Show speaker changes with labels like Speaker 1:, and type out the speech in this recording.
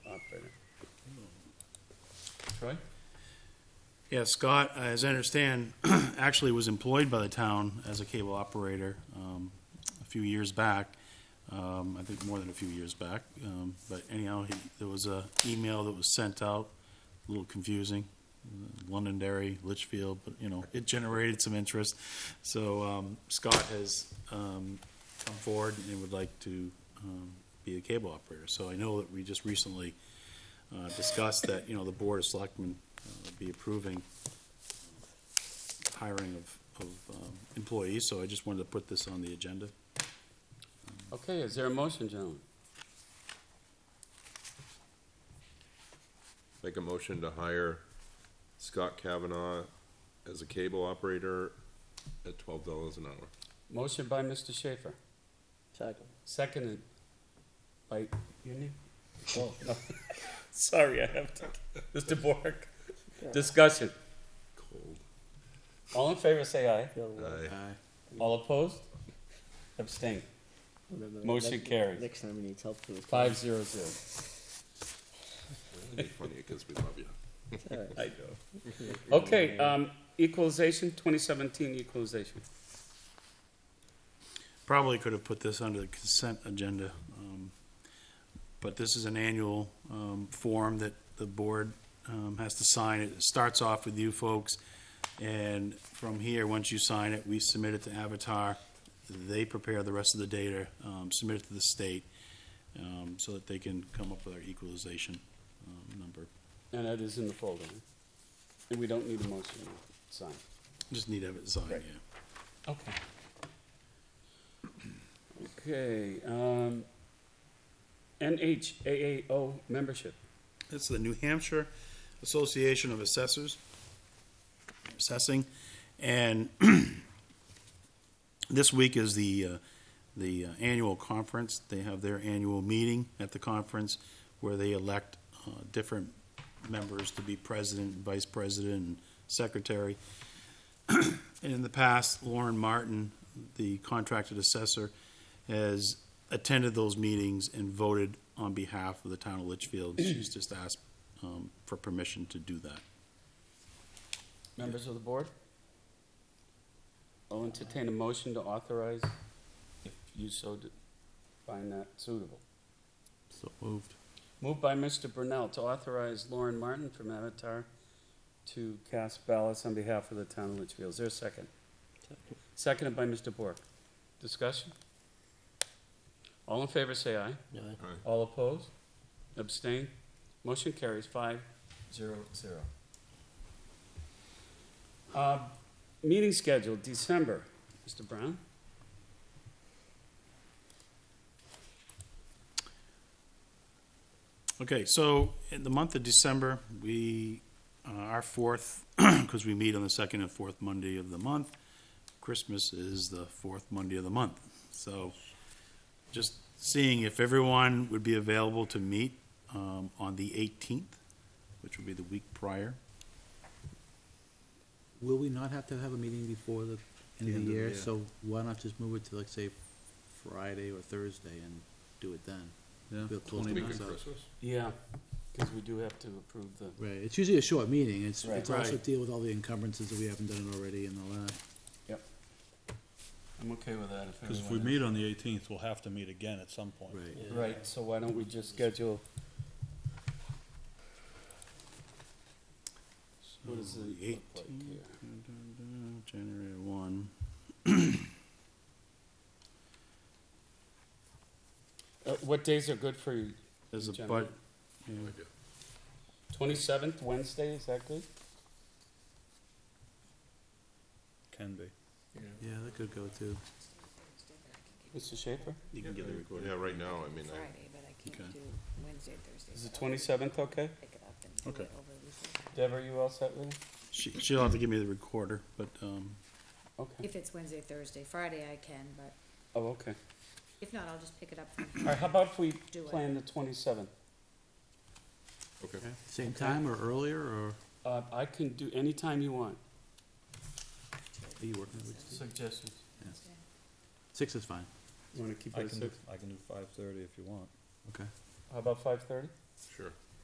Speaker 1: Troy?
Speaker 2: Yeah, Scott, as I understand, actually was employed by the town as a cable operator um, a few years back, um, I think more than a few years back. Um, But anyhow, he- there was a email that was sent out, a little confusing, Londonderry, Litchfield, but, you know, it generated some interest. So um, Scott has um, come forward and would like to um, be a cable operator. So I know that we just recently uh, discussed that, you know, the Board of Selectmen uh, be approving hiring of, of um, employees, so I just wanted to put this on the agenda.
Speaker 1: Okay, is there a motion, gentlemen?
Speaker 3: Make a motion to hire Scott Kavanaugh as a cable operator at twelve dollars an hour.
Speaker 1: Motion by Mr. Schaefer,
Speaker 4: Second.
Speaker 1: seconded by, your name? Oh, no. Sorry, I have to, Mr. Bork. Discussion.
Speaker 3: Cold.
Speaker 1: All in favor, say aye.
Speaker 4: The other one.
Speaker 3: Aye.
Speaker 1: All opposed? Abstain.
Speaker 4: Remember,
Speaker 1: Motion
Speaker 4: next-
Speaker 1: carried.
Speaker 4: Next time he needs help for his.
Speaker 1: Five zero zero.
Speaker 3: It'd be funny because we love you.
Speaker 1: I know. Okay, um, equalization, twenty seventeen equalization.
Speaker 2: Probably could have put this under the consent agenda, um, but this is an annual um, form that the board um, has to sign. It starts off with you folks, and from here, once you sign it, we submit it to Avatar. They prepare the rest of the data, um, submit it to the state, um, so that they can come up with our equalization um, number.
Speaker 1: And that is in the folder. huh? And we don't need a motion to sign.
Speaker 2: Just need to have it signed, yeah.
Speaker 1: Right. Okay. Okay, um, NHAAO membership.
Speaker 2: That's the New Hampshire Association of Assessors, assessing, and this week is the, uh, the uh, annual conference. They have their annual meeting at the conference where they elect uh, different members to be president, vice president, and secretary. And in the past, Lauren Martin, the contracted assessor, has attended those meetings and voted on behalf of the town of Litchfield. She's just asked um, for permission to do that.
Speaker 1: Members of the board? I'll entertain a motion to authorize if you so d- find that suitable.
Speaker 2: So moved.
Speaker 1: Moved by Mr. Brunel to authorize Lauren Martin from Avatar to cast ballots on behalf of the town of Litchfield. Is there a second? Seconded by Mr. Bork. Discussion? All in favor, say aye.
Speaker 4: No,
Speaker 1: All opposed? Abstain? Motion carries five, zero, zero. Uh, meeting schedule, December. Mr. Brown?
Speaker 2: Okay, so in the month of December, we, uh, our fourth, because we meet on the second and fourth Monday of the month, Christmas is the fourth Monday of the month. So just seeing if everyone would be available to meet um, on the 18th, which would be the week prior.
Speaker 5: Will we not have to have a meeting before the end of the year? So why not just move it to like, say, Friday or Thursday and do it then? We'll close the
Speaker 3: Week
Speaker 5: month
Speaker 3: of
Speaker 5: out.
Speaker 3: Christmas?
Speaker 1: Yeah, because we do have to approve the.
Speaker 5: Right, it's usually a short meeting, it's,
Speaker 1: Right.
Speaker 5: it's also
Speaker 2: Right.
Speaker 5: deal with all the encumbrances that we haven't done already and all that.
Speaker 1: I'm okay with that if
Speaker 6: Because if we meet on the eighteenth, we'll have to meet again at some point.
Speaker 5: Right.
Speaker 1: Right, so why don't we just schedule? What does it look
Speaker 2: Um, The
Speaker 1: like
Speaker 2: 18th.
Speaker 1: here?
Speaker 2: January one.
Speaker 1: Uh, what days are good for you?
Speaker 2: There's a
Speaker 1: January.
Speaker 2: bud, yeah.
Speaker 1: Twenty-seventh, Wednesday, is that good?
Speaker 6: Can be.
Speaker 5: Yeah, that could go too.
Speaker 1: Mr. Schaefer?
Speaker 2: you can get the recording.
Speaker 3: Yeah, right now, I mean, I,
Speaker 7: Friday, but I
Speaker 2: Okay.
Speaker 7: can't do Wednesday, Thursday.
Speaker 1: Is the
Speaker 7: so I'll
Speaker 1: twenty-seventh okay?
Speaker 7: Pick it up and do
Speaker 2: Okay.
Speaker 7: it over the weekend.
Speaker 1: Deb, are you all set with it?
Speaker 2: She, she'll have to give me the recorder, but, um,
Speaker 1: Okay.
Speaker 7: If it's Wednesday, Thursday, Friday I can, but
Speaker 1: Oh, okay.
Speaker 7: if not, I'll just pick it up from
Speaker 1: All right, how about if we
Speaker 7: Do it.
Speaker 1: plan the twenty-seventh?
Speaker 3: okay.
Speaker 5: Same time or earlier, or are
Speaker 1: Uh, I can do any time you want.
Speaker 5: you working that week? Steve?
Speaker 1: Suggestions.
Speaker 7: Wednesday.
Speaker 5: Six is fine,
Speaker 1: You wanna keep
Speaker 6: I
Speaker 1: it at
Speaker 6: can do,
Speaker 1: six?
Speaker 6: I can do five thirty if you want.
Speaker 5: okay.
Speaker 1: How about five-thirty?
Speaker 3: Sure.